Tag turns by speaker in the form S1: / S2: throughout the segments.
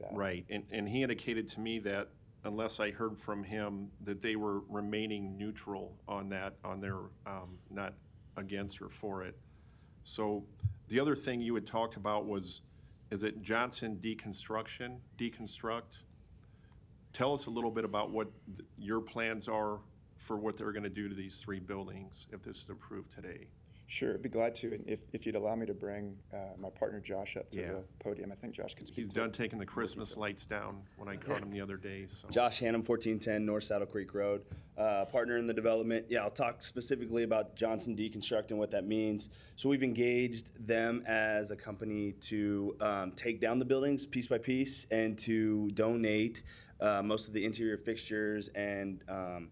S1: that.
S2: Right, and, and he indicated to me that unless I heard from him, that they were remaining neutral on that, on their, um, not against or for it. So the other thing you had talked about was, is it Johnson Deconstruction, Deconstruct? Tell us a little bit about what th- your plans are for what they're gonna do to these three buildings if this is approved today.
S1: Sure, I'd be glad to, and if, if you'd allow me to bring uh, my partner Josh up to
S2: Yeah.
S1: the podium, I think Josh could speak.
S2: He's
S1: to-
S2: done taking the Christmas lights down when I caught him the other day, so.
S3: Josh Hannum, 1410 North Saddle Creek Road, uh, partner in the development. Yeah, I'll talk specifically about Johnson Deconstruct and what that means. So we've engaged them as a company to um, take down the buildings piece by piece and to donate uh, most of the interior fixtures and um,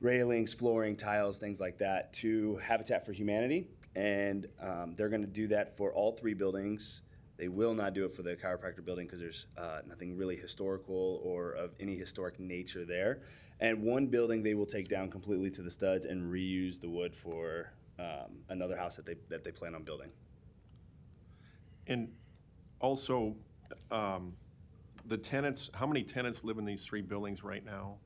S3: railings, flooring, tiles, things like that to Habitat for Humanity. And um, they're going to do that for all three buildings. They will not do it for the chiropractor building because there's uh, nothing really historical or of any historic nature there. And one building they will take down completely to the studs and reuse the wood for um, another house that they that they plan on building.
S2: And also, um, the tenants, how many tenants live in these three buildings right now?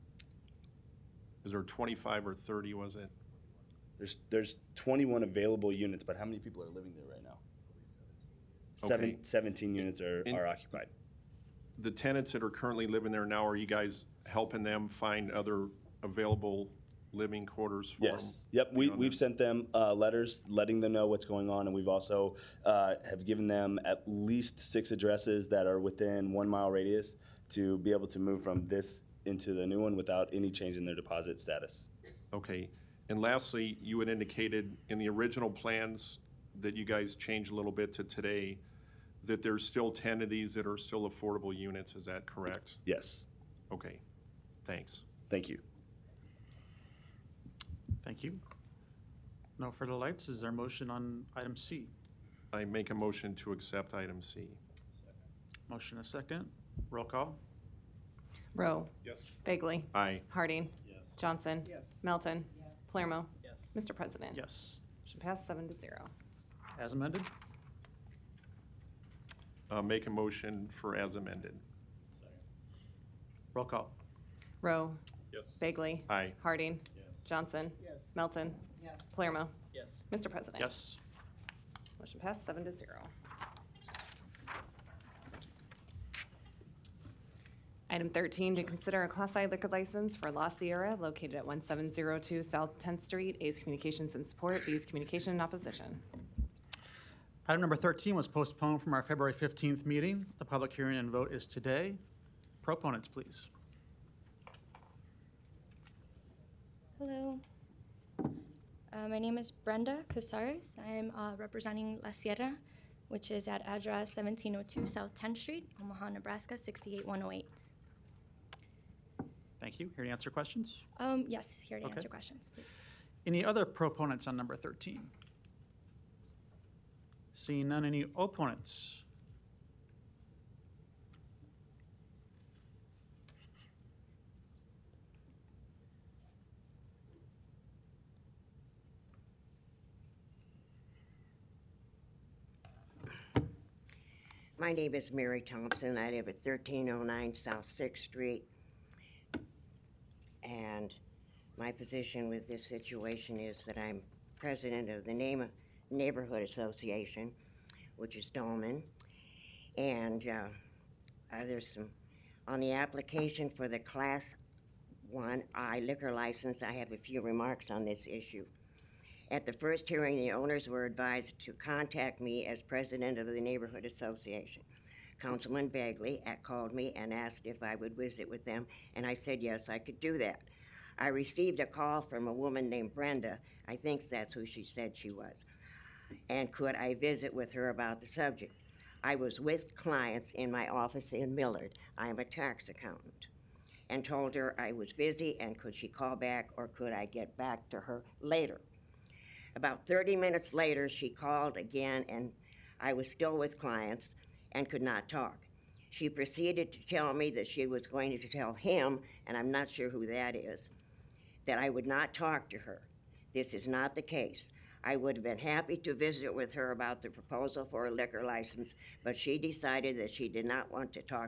S2: Is there 25 or 30, was it?
S3: There's there's 21 available units, but how many people are living there right now?
S2: Okay.
S3: Seven, 17 units are,
S2: In-
S3: are occupied.
S2: The tenants that are currently living there now, are you guys helping them find other available living quarters for them?
S3: Yes. Yep. We,
S2: you Um, know,
S3: we've
S2: that-
S3: sent them uh, letters letting them know what's going on, and we've also uh, have given them at least six addresses that are within one mile radius to be able to move from this into the new one without any change in their deposit status.
S2: Okay. And lastly, you had indicated in the original plans that you guys changed a little bit to today, that there's still 10 of these that are still affordable units, is that correct?
S3: Yes.
S2: Okay, thanks.
S3: Thank you.
S4: Thank you. No further lights. Is there a motion on item C?
S2: I make a motion to accept item C.
S4: Motion a second. Roll call.
S5: Rowe.
S2: Yes.
S5: Bagley.
S2: Aye.
S5: Harding. Johnson. Melton. Palermo. Mr. President.
S4: Yes.
S5: Motion passed seven to zero.
S4: As amended.
S2: Uh, make a motion for as amended.
S4: Roll call.
S5: Rowe.
S2: Yes.
S5: Bagley.
S2: Aye.
S5: Harding. Johnson. Melton. Palermo.
S4: Yes.
S5: Mr. President.
S4: Yes.
S5: Motion passed seven to zero. Item 13, to consider a Class I liquor license for La Sierra located at 1702 South 10th Street. A's Communications in support, B's Communication in opposition.
S4: Item number 13 was postponed from our February 15th meeting. The public hearing and vote is today. Proponents, please.
S6: Hello. Uh, my name is Brenda Casares. I'm uh, representing La Sierra, which is at address 1702 South 10th Street, Omaha, Nebraska 68108.
S4: Thank you. Here to answer questions.
S6: Um, yes, here to
S4: Okay.
S6: answer questions, please.
S4: Any other proponents on number 13? Seeing none, any opponents?
S7: My name is Mary Thompson. I live at 1309 South Sixth Street. And my position with this situation is that I'm president of the Name- Neighborhood Association, which is Dolman. And uh, uh, there's some, on the application for the Class 1I liquor license, I have a few remarks on this issue. At the first hearing, the owners were advised to contact me as president of the neighborhood association. Councilman Bagley uh, called me and asked if I would visit with them, and I said yes, I could do that. I received a call from a woman named Brenda, I think that's who she said she was, and could I visit with her about the subject? I was with clients in my office in Millard. I am a tax accountant and told her I was busy and could she call back or could I get back to her later. About 30 minutes later, she called again, and I was still with clients and could not talk. She proceeded to tell me that she was going to tell him, and I'm not sure who that is, that I would not talk to her. This is not the case. I would have been happy to visit with her about the proposal for a liquor license, but she decided that she did not want to talk